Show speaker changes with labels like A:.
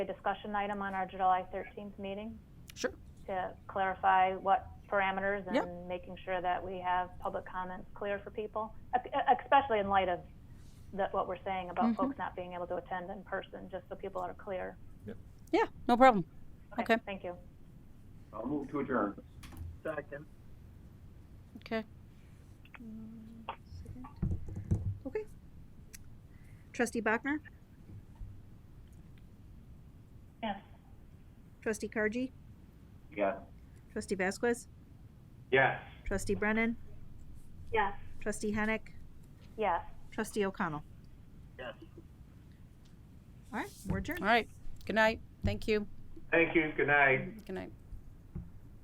A: a discussion item on our July 13th meeting
B: Sure.
A: to clarify what parameters
B: Yep.
A: and making sure that we have public comments clear for people, e- especially in light of the, what we're saying about
B: Mm-hmm.
A: folks not being able to attend in person, just so people are clear.
B: Yeah, no problem. Okay.
A: Thank you.
C: I'll move to adjourn.
D: Second.
B: Okay.
E: Okay. Trustee Bachner,
A: Yes.
E: trustee Kargi,
C: Yes.
E: trustee Vasquez,
C: Yes.
E: trustee Brennan,
A: Yes.
E: trustee Hennick,
A: Yes.
E: trustee O'Connell.
D: Yes.
E: All right, we're adjourned.
B: All right. Good night. Thank you.
C: Thank you, good night.
B: Good night.